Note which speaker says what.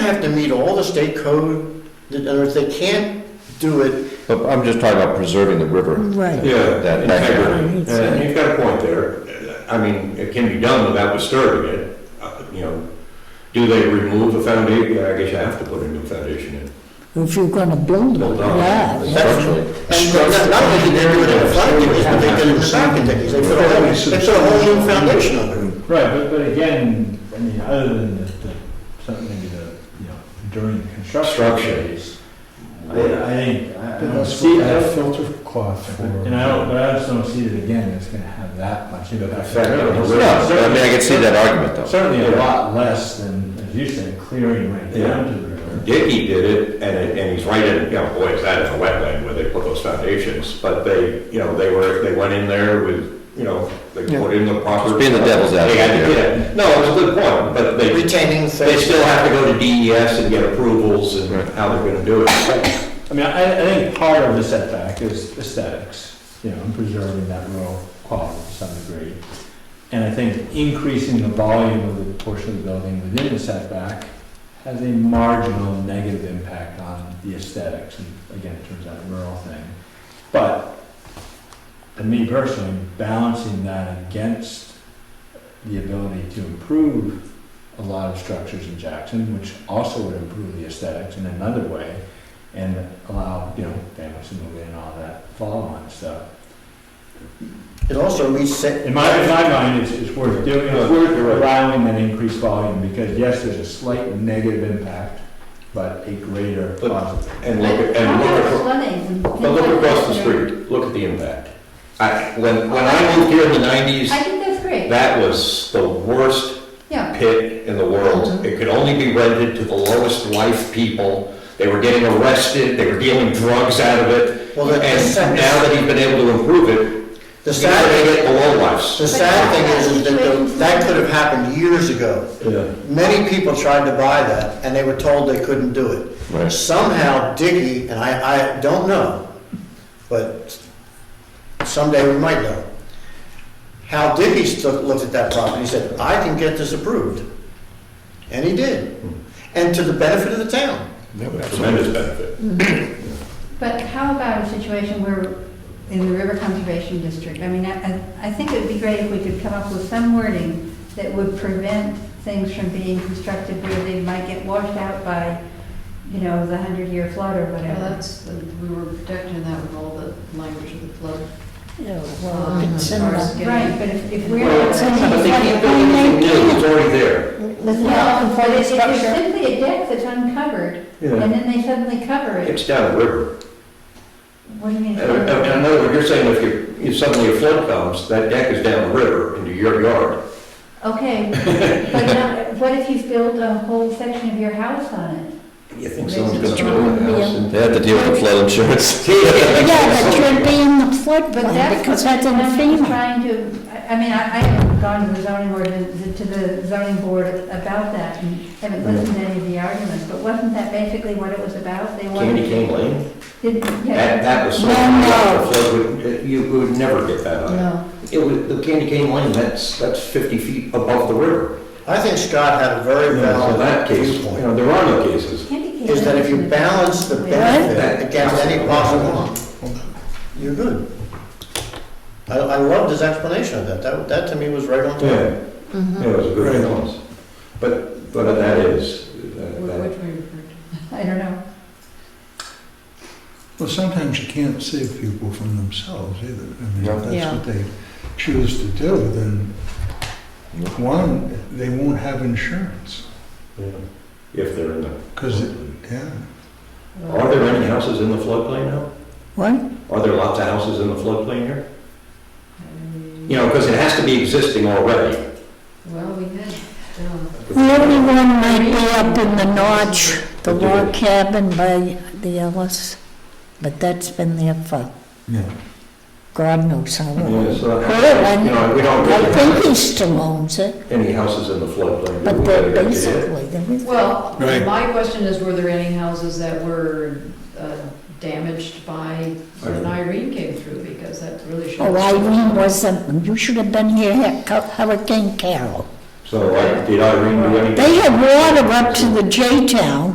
Speaker 1: have to meet all the state code, and if they can't do it,
Speaker 2: But I'm just talking about preserving the river.
Speaker 3: Right.
Speaker 4: Yeah,
Speaker 2: That- that-
Speaker 4: integrity, and you've got a point there. I mean, it can be done without disturbing it, Uh, you know. Do they remove the foundation? Yeah, I guess you have to put a new foundation in.
Speaker 3: If you're gonna build it,
Speaker 4: Build on it.
Speaker 3: yeah.
Speaker 2: Structurally.
Speaker 1: and not not only did they do it in the flood conditions, but they did it in the back conditions. They put a whole, they put a whole new foundation under it.
Speaker 5: Right, but, but again, I mean, other than the, the, something maybe the, you know, during the construction
Speaker 4: Construction.
Speaker 5: phase, I, I think, I I don't
Speaker 6: That's
Speaker 5: see,
Speaker 6: what
Speaker 5: I
Speaker 6: I
Speaker 5: don't,
Speaker 6: filter cloth for.
Speaker 5: and I don't, but I just don't see that again, it's gonna have that much impact.
Speaker 4: Effect on the river.
Speaker 2: No, but I mean, I can see that argument though.
Speaker 5: Certainly a
Speaker 4: Yeah.
Speaker 5: lot less than, as you said, clearing right
Speaker 4: Yeah.
Speaker 5: down to the river.
Speaker 4: Dickey did it, and, it- and he's right in, you know, boy, is that in a wetland where they put those foundations, but they, you know, they were, they went in there with, you know, they put in the proper.
Speaker 2: Just being the devil's
Speaker 4: They had to
Speaker 2: advocate.
Speaker 4: get- No, it's a good point, but they.
Speaker 1: Retaining the
Speaker 4: They still have to go to DES and get approvals and how they're gonna do it.
Speaker 5: I mean, I, I think part of the setback is aesthetics, you know, and preserving that rural quality to some degree. And I think increasing the volume of the portion of the building within the setback has a marginal negative impact on the aesthetics, and again, it turns out a rural thing. But, to me personally, balancing that against the ability to improve a lot of structures in Jackson, which also would improve the aesthetics in another way, and allow, you know, families to move in and all that follow-on stuff.
Speaker 1: It also reset.
Speaker 5: In my, in my mind, it's, it's worth doing, it's worth
Speaker 4: You're right.
Speaker 5: allowing that increased volume, because yes, there's a slight negative impact, but a greater
Speaker 4: But-
Speaker 5: positive.
Speaker 4: And look, at- and look, at- but look across the street, look at the impact. I, when, when I moved here in the nineties,
Speaker 7: I think that's great,
Speaker 4: that was the worst
Speaker 7: yeah.
Speaker 4: pit in the
Speaker 1: Mm-hmm.
Speaker 4: world. It could only be rented to the lowest life people. They were getting arrested, they were dealing drugs out of it.
Speaker 1: Well, the- the
Speaker 4: And
Speaker 1: sad-
Speaker 4: now that he's been able to improve it,
Speaker 1: The
Speaker 4: he's gonna
Speaker 1: sad,
Speaker 4: get below lives.
Speaker 1: the sad thing is, is that the- that could have happened years ago. Many people tried to buy that, and they were told they couldn't do it.
Speaker 2: Right.
Speaker 1: Somehow Dickey, and I, I don't know, but someday we might know, how Dickey stu- looked at that property, he said, I can get this approved. And he did,
Speaker 4: Hmm.
Speaker 1: and to the benefit of the town.
Speaker 4: Tremendous benefit.
Speaker 7: But how about a situation where, in the River Conservation District, I mean, I, I- I think it would be great if we could come up with some wording that would prevent things from being constructed where they might get washed out by, you know, the hundred-year flood or
Speaker 8: Well,
Speaker 7: whatever.
Speaker 8: that's, we were protecting that with all the language of the flood. Uh,
Speaker 3: Yeah, well, it's in
Speaker 8: Ours
Speaker 3: the,
Speaker 8: getting-
Speaker 7: Right, but if, if we're.
Speaker 4: Well, But they can't build anything new, it's already there.
Speaker 3: it's not
Speaker 7: No,
Speaker 3: in
Speaker 7: but
Speaker 3: front of
Speaker 7: if if there's
Speaker 3: structure.
Speaker 7: simply a deck that's uncovered, and then they suddenly cover it,
Speaker 4: It's down the river.
Speaker 7: what do you mean?
Speaker 4: And and- and in other words, you're saying if you, if suddenly a flood comes, that deck is down the river into your yard.
Speaker 7: Okay, but now, what if you build a whole section of your house on it?
Speaker 4: You
Speaker 8: think
Speaker 4: someone's
Speaker 8: someone's
Speaker 4: gonna
Speaker 8: gonna
Speaker 4: build a house
Speaker 2: They have to deal with the flood insurance.
Speaker 3: Yeah, but you're being the
Speaker 7: But
Speaker 3: floodplain
Speaker 7: that's
Speaker 3: because
Speaker 7: what
Speaker 3: that's in
Speaker 7: I'm just
Speaker 3: FEMA.
Speaker 7: Trying to, I- I mean, I, I haven't gone to the zoning board, to the zoning board about that, and haven't listened to any of the arguments, but wasn't that basically what it was about? They
Speaker 4: Candy
Speaker 7: wanted,
Speaker 4: cane lane,
Speaker 7: did,
Speaker 4: that,
Speaker 7: yeah,
Speaker 4: that was so,
Speaker 3: No, no.
Speaker 4: the flood would, uh, you would never get that on.
Speaker 8: No,
Speaker 4: It was, the candy cane lane, that's, that's 50 feet above the river.
Speaker 1: I think Scott had a very
Speaker 4: So that
Speaker 1: valid
Speaker 4: case, you
Speaker 1: viewpoint,
Speaker 4: know, there are no cases.
Speaker 7: candy cane.
Speaker 1: is that if you balance the benefit against any possible harm, you're good. I, I loved his explanation of that, that, that to me was right on
Speaker 4: Yeah,
Speaker 1: time.
Speaker 4: yeah, it was a
Speaker 1: Right.
Speaker 4: good balance. But, but that is,
Speaker 8: wh-
Speaker 4: that- that-
Speaker 8: which we referred to.
Speaker 7: I don't know.
Speaker 6: Well, sometimes you can't save people from themselves either. I mean,
Speaker 2: No.
Speaker 6: if
Speaker 3: Yeah.
Speaker 6: that's what they choose to do, then
Speaker 2: No.
Speaker 6: one, they won't have insurance.
Speaker 4: yeah, if they're in the.
Speaker 6: Because, yeah,
Speaker 4: Are there any houses in the floodplain now?
Speaker 3: What?
Speaker 4: Are there lots of houses in the floodplain here? You know, because it has to be existing already.
Speaker 8: Well, we had, uh,
Speaker 3: The only one might be up in the notch, the log cabin by the Ellis, but that's been there for
Speaker 6: yeah.
Speaker 3: God knows how long.
Speaker 4: Yeah, so,
Speaker 3: Well,
Speaker 4: You know, we don't
Speaker 3: I think he
Speaker 4: really have
Speaker 3: still owns it,
Speaker 4: any houses in the floodplain.
Speaker 3: but
Speaker 4: We
Speaker 3: they're
Speaker 4: better get it.
Speaker 3: basically, there is.
Speaker 8: well,
Speaker 6: Right.
Speaker 8: my question is, were there any houses that were uh, damaged by when Irene came through? Because that really should.
Speaker 3: Oh, Irene wasn't, you should have been here, Hur- Hurricane Carol.
Speaker 9: So I, did Irene do anything?
Speaker 4: They had water up to the J-town.